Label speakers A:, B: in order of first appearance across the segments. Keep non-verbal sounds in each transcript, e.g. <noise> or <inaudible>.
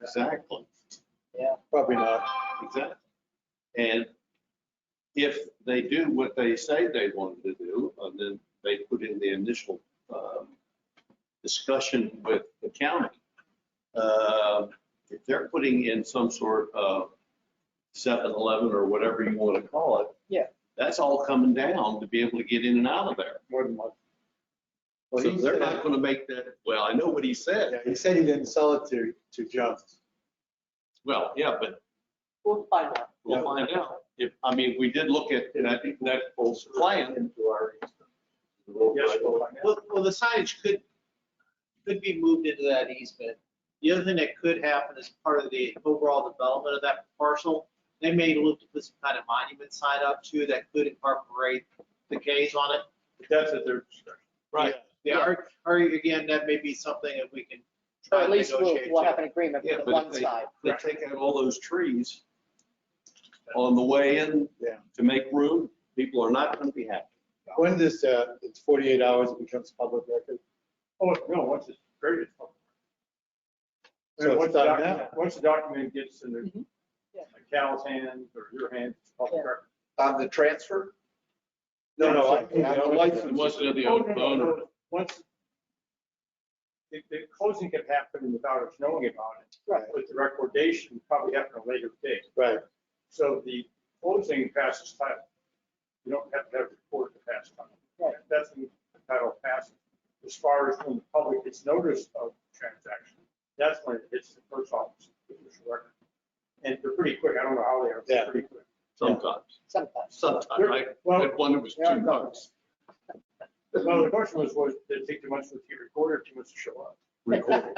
A: Exactly,
B: Yeah,
C: Probably not.
A: exactly. And if they do what they say they wanted to do, and then they put in the initial um, discussion with the county, uh, if they're putting in some sort of 7-Eleven or whatever you want to call it.
B: Yeah.
A: That's all coming down to be able to get in and out of there.
C: More than one. Well,
A: So
C: he
A: they're not
C: said,
A: going to make that, well, I know what he said.
C: yeah, he said he didn't sell it to, to Jones.
A: Well, yeah, but
B: we'll find out.
A: We'll
C: Yeah.
A: find out. If, I mean, we did look at that, that whole plan.
C: Yes, we'll find out.
D: Well, well, the signage could, could be moved into that easement. The other thing that could happen is part of the overall development of that parcel, they may look to put some kind of monument sign up too that could incorporate the K's on it.
C: But That's at their discretion.
A: Right.
D: Yeah, or, or again, that may be something that we can
B: Or
D: try
B: at
D: to
B: least we'll,
D: negotiate.
B: we'll
D: too.
B: have an agreement
A: Yeah,
B: with the
A: but
B: one
A: if they,
B: side.
A: they take out all those trees on the way in
C: Yeah.
A: to make room, people are not going to be happy.
C: When this, uh, it's 48 hours, it becomes public record.
E: Oh, no, once it's created.
C: So
E: Once
C: it's
E: the
C: not
E: document,
C: now.
E: once the document gets in
B: Mhm. Yeah.
E: the Cal's hands or your hands, it's public
B: Yeah.
E: record.
F: on the transfer?
C: No, no, I-
E: Yeah,
C: I'm-
E: license.
A: Unless they're the
E: Oh,
A: owner.
E: no, no, no. Once, the, the closing could happen without us knowing about it.
B: Right.
E: But the recordation probably happened at a later date.
C: Right.
E: So the closing passes title. You don't have to have a report to pass title.
B: Right.
E: That's when the title passes. As far as when the public gets notice of the transaction, that's when it hits the first office, the official record. And they're pretty quick. I don't know how they are. but
C: Yeah.
E: They're pretty quick.
A: Sometimes,
B: Sometimes.
A: sometimes.
E: They're-
A: I
E: Well,
A: had one that was
E: yeah, I
A: two
E: know.
A: bucks
E: well, the question was, was, did it take too much to get recorded, too much to show up?
A: recorded,
E: Well,
A: to-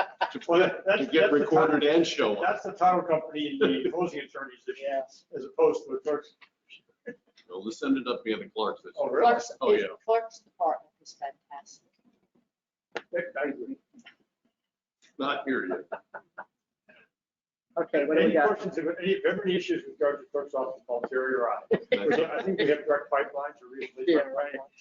E: that- that's-
A: to
E: that's
A: get
E: the
A: recorded and show up.
E: That's the title company
A: <laughs>
E: and the closing attorney's issue,
B: Yes.
E: as opposed to the clerk's.
A: Well, This ended up being the clerk's.
E: Oh, really?
B: Clerk's,
A: Oh, yeah.
B: clerk's department is fantastic.
E: I agree.
A: Not here yet.
B: Okay, what do we
E: Any
B: got?
E: questions, if any, if there are any issues with regard to clerk's office, call Terry or I.
B: <laughs>
E: I think we have direct pipelines or reasonably,
B: Yeah.
E: direct pipelines.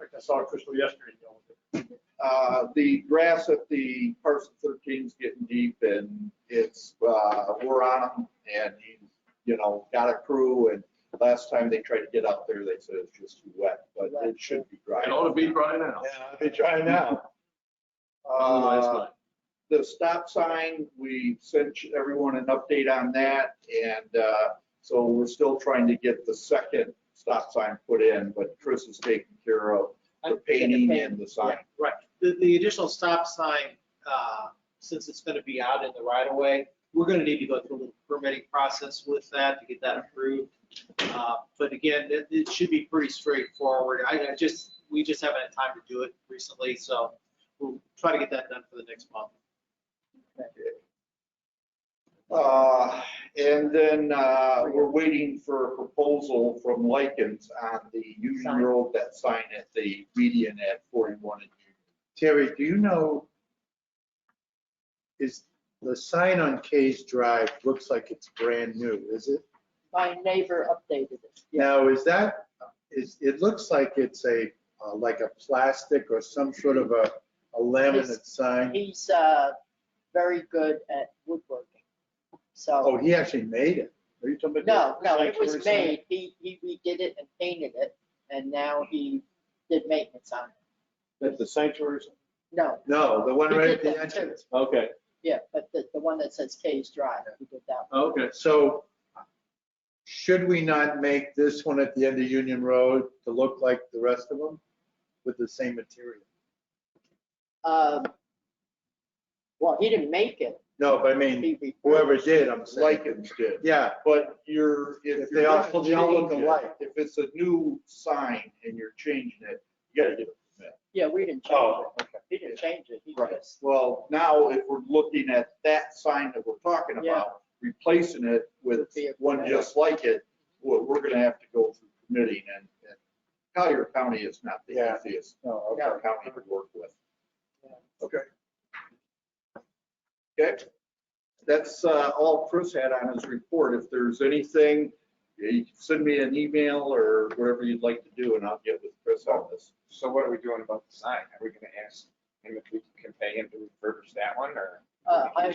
E: In fact, I saw Crystal yesterday. dealing with it.
F: Uh, The grass at the parcel 13 is getting deep and it's, uh, we're on him and he's, you know, got a crew and last time they tried to get out there, they said it's just too wet, but it should be dry.
A: It ought to be dry now.
C: Yeah, I'll be trying now.
A: Otherwise,
F: Uh,
A: not.
F: the stop sign, we sent everyone an update on that, and uh, so we're still trying to get the second stop sign put in, but Chris is taking care of the painting and the sign.
D: Right, the, the additional stop sign, uh, since it's gonna be out in the right of way, we're gonna need to go through a little permitting process with that to get that approved. Uh, But again, it, it should be pretty straightforward. I, I just, we just haven't had time to do it recently, so we'll try to get that done for the next month.
F: Uh, And then uh, we're waiting for a proposal from Likens on the Union
B: Sign.
F: Road, that sign at the median at 41 and Union.
C: Terry, do you know, is the sign on Case Drive, looks like it's brand new, is it?
B: My neighbor updated it.
C: Now, is that, is, it looks like it's a, uh, like a plastic or some sort of a a laminate sign?
B: He's, uh, very good at woodworking.
C: Oh,
B: So,
C: he actually made it? Are you talking
B: no,
C: about? the-
B: no, it
C: like
B: was
C: the sign?
B: made. He, he redid it and painted it and now he did maintenance on it.
A: That's the sanctuary.
B: No,
C: No, the one
B: He
C: right
B: did
C: at the
B: that too.
C: entrance.
A: Okay,
B: yeah, but the, the one that says Kay's Drive, he did that.
A: okay.
C: So should we not make this one at the end of Union Road to look like the rest of them with the same material?
B: Um, Well, he didn't make it.
C: No, but I mean,
B: He re-
C: whoever did, I'm saying.
F: Likens did.
C: Yeah,
F: But you're, if
C: If they all-
F: you're
C: they all look
F: changing it,
C: alike.
F: If it's a new sign and you're changing it, you gotta get a permit.
B: Yeah, we didn't change
C: oh, okay.
B: it. He didn't change it. He
F: Right.
B: just,
F: Well, now if we're looking at that sign that we're talking
B: Yeah.
F: about, replacing it with
B: Be a
F: one
B: permit.
F: just like it, well, we're gonna have to go through permitting and and Collier County is not the
C: Yeah.
F: easiest
C: No, okay.
B: Yeah.
F: county to work with.
B: Yeah.
F: Okay. Okay, that's uh, all Chris had on his report. If there's anything, you can send me an email or whatever you'd like to do and I'll get with Chris on this.
G: So what are we doing about the sign? Are we gonna ask him if we can pay him to refurbish that one, or?
B: uh, I